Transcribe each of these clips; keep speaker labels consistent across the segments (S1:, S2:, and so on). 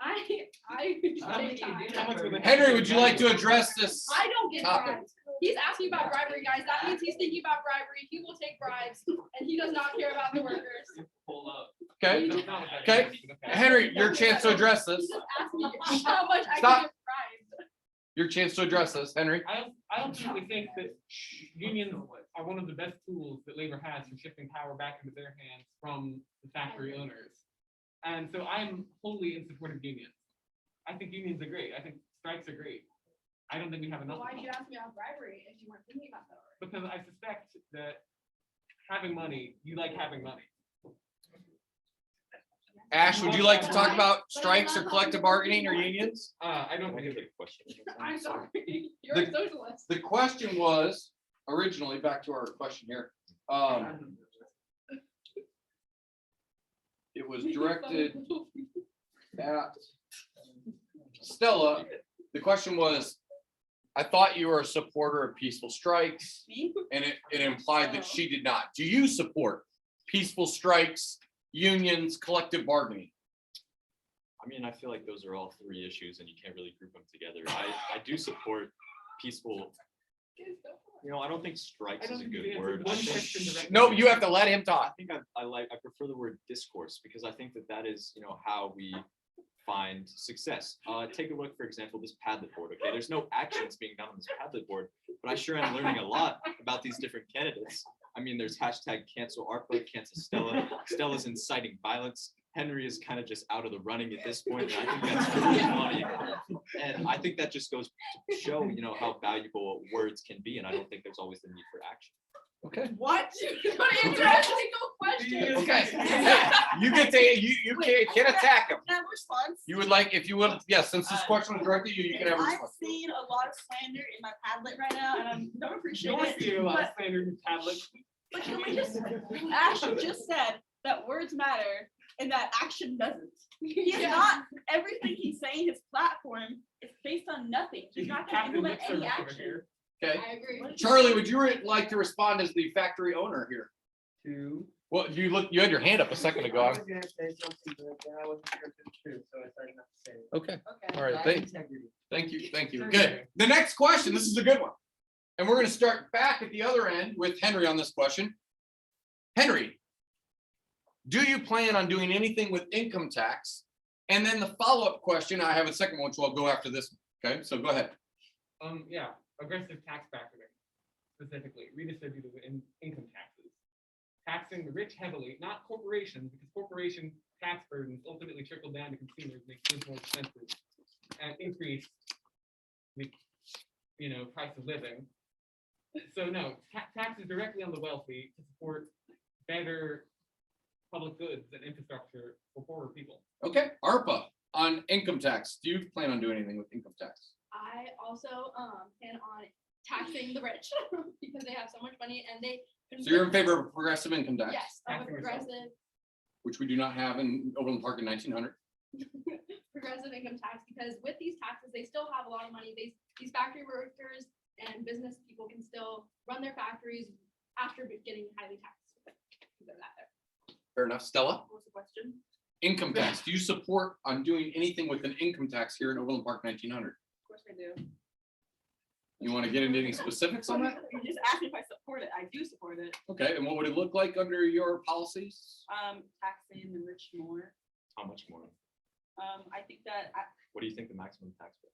S1: I, I.
S2: Henry, would you like to address this?
S1: I don't get
S2: Topic.
S1: bribes. He's asking about bribery, guys. That means he's thinking about bribery. He will take bribes and he does not care about the workers.
S3: Pull up.
S2: Okay, okay. Henry, your chance to address
S1: He
S2: this,
S1: just asked me how much I
S2: Stop.
S1: can get bribed.
S2: your chance to address this, Henry.
S3: I, I ultimately think that unions are one of the best tools that labor has for shifting power back into their hands from the factory owners. And so I'm wholly in support of unions. I think unions are great. I think strikes are great. I don't think we have enough.
S1: Well,
S3: of
S1: Why'd
S3: them.
S1: you ask me about bribery if you weren't thinking about that? already?
S3: Because I suspect that having money, you like having money.
S2: Ash, would you like to talk about strikes or collective bargaining or unions?
S3: Uh, I don't think it's.
S1: I'm sorry. You're
S2: The-
S1: a socialist.
S2: The question was originally, back to our question here, um, it was directed at Stella. The question was, I thought you were a supporter of peaceful strikes.
S1: Me?
S2: And it, it implied that she did not. Do you support peaceful strikes, unions, collective bargaining?
S4: I mean, I feel like those are all three issues and you can't really group them together. I, I do support peaceful, you know, I don't think
S3: I
S4: strikes
S3: don't
S4: is a
S3: think you
S4: good
S3: answered
S4: word. I
S3: one
S4: think-
S3: question directly.
S2: No, you have to let him
S4: I
S2: talk.
S4: think I, I like, I prefer the word discourse because I think that that is, you know, how we find success. Uh, take a look, for example, this Padlet board, okay? There's no actions being done on this Padlet board, but I sure am learning a lot about these different candidates. I mean, there's hashtag cancel ARPA, cancel Stella, Stella's inciting violence. Henry is kind of just out of the running at this point, and I think that's really funny. And I think that just goes to show, you know, how valuable words can be, and I don't think there's always the need for action.
S2: Okay.
S1: What? You don't answer a single question.
S2: Okay. Hey, You get to, you, you can't, can't attack him.
S5: Can I have a response?
S2: You would like, if you would, yes, since
S4: Uh,
S2: this question was directed to you, you can have a
S5: I've
S2: response.
S5: seen a lot of slander in my Padlet right now, and I am don't appreciate
S3: You're
S5: it.
S3: seeing a lot of slander in tablets.
S5: But can we just, Ash you just said that words matter and that action doesn't. He's
S1: Yeah.
S5: not, everything he's saying, his platform is based on nothing. He's not gonna
S3: Captain
S5: implement
S3: lip
S5: any
S3: service over
S5: action.
S3: here.
S2: Okay.
S1: I agree.
S2: Charlie, would you re- like to respond as the factory owner here?
S6: Two.
S2: Well, you look, you had your hand up a second ago.
S6: I was gonna say something, but then I wasn't sure if it's true, so I started not to say it.
S2: Okay,
S1: Okay.
S2: all right,
S6: Lack
S2: thank,
S6: integrity.
S2: thank you, thank you. Good. The next question, this is a good one. And we're gonna start back at the other end with Henry on this question. Henry, do you plan on doing anything with income tax? And then the follow-up question, I have a second one, so I'll go after this. Okay, so go ahead.
S3: Um, yeah, aggressive tax bracketing, specifically redistributive in income taxes. Taxing the rich heavily, not corporations, because corporation tax burdens ultimately trickle down to consumers, make things more expensive. And increase the, you know, price of living. So no, ta- taxes directly on the wealthy to support better public goods and infrastructure for poorer people.
S2: Okay, ARPA on income tax. Do you plan on doing anything with income tax?
S1: I also, um, plan on taxing the rich because they have so much money and they.
S2: So you're in favor of progressive income tax?
S1: Yes, of a
S3: Taxing yourself.
S1: progressive,
S2: which we do not have in Overland Park in nineteen hundred.
S1: progressive income tax because with these taxes, they still have a lot of money. These, these factory workers and business people can still run their factories after getting highly taxed. They're not there.
S2: Fair enough. Stella,
S5: What was the question?
S2: income tax. Do you support on doing anything with an income tax here in Overland Park nineteen hundred?
S5: Of course I do.
S2: You want to get into any specifics on that?
S5: You just asked me if I support it. I do support it.
S2: Okay, and what would it look like under your policies?
S5: Um, taxing the rich more.
S4: How much more?
S5: Um, I think that, I,
S4: What do you think the maximum tax rate?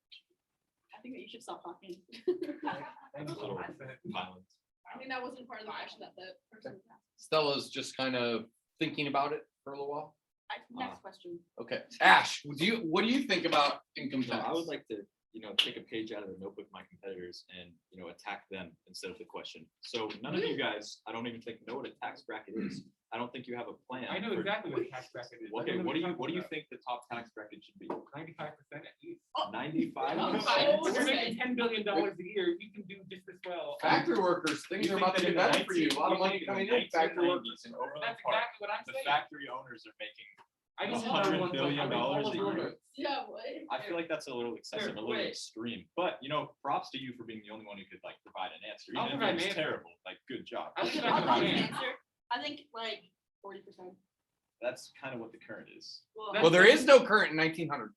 S5: I think that you should stop talking.
S3: That's
S4: A little
S3: what I said.
S4: Violence.
S1: I think that wasn't part of the question that the person was asking.
S2: Stella's just kind of thinking about it for a little while.
S5: I- Next question.
S2: Okay, Ash, do you, what do you think about income
S4: No,
S2: tax?
S4: I would like to, you know, take a page out of the notebook of my competitors and, you know, attack them instead of the question. So none of you guys, I don't even think know what a tax bracket is. I don't think you have a plan.
S3: I know
S4: for-
S3: exactly what a tax bracket is. I
S4: Okay,
S3: know
S4: what do you,
S3: you're
S4: what do you
S3: talking
S4: think the top tax bracket should be?
S3: about. Ninety-five percent at least.
S4: Ninety-five
S1: Oh,
S4: percent?
S3: If You're
S1: okay.
S3: making ten billion dollars a year, you can do just as well.
S2: Factory workers, things
S4: You
S2: are
S4: think that
S2: about to get
S4: in the
S2: better for you. A lot of
S4: 19-
S2: money coming in. Factory workers.
S4: 1990s in Overland
S3: That's
S4: Park,
S3: exactly what I'm
S4: The
S3: saying.
S4: factory owners are making,
S3: I don't
S4: a
S3: know
S4: hundred
S3: everyone's
S4: billion
S3: like, I mean, all
S4: dollars
S3: of
S4: a
S3: them
S4: year.
S3: are-
S1: Yeah, what?
S4: I feel like that's a little excessive, a little
S3: wait.
S4: extreme, but you know, props to you for being the only one who could like provide an answer.
S3: I'll
S4: Even
S3: provide
S4: if it's
S3: an answer.
S4: terrible, like, good job.
S3: I'll provide
S5: I'll
S3: an
S5: probably
S3: Yeah.
S5: answer. I think like forty percent.
S4: That's kind of what the current is.
S2: Well, there is no current in nineteen hundred.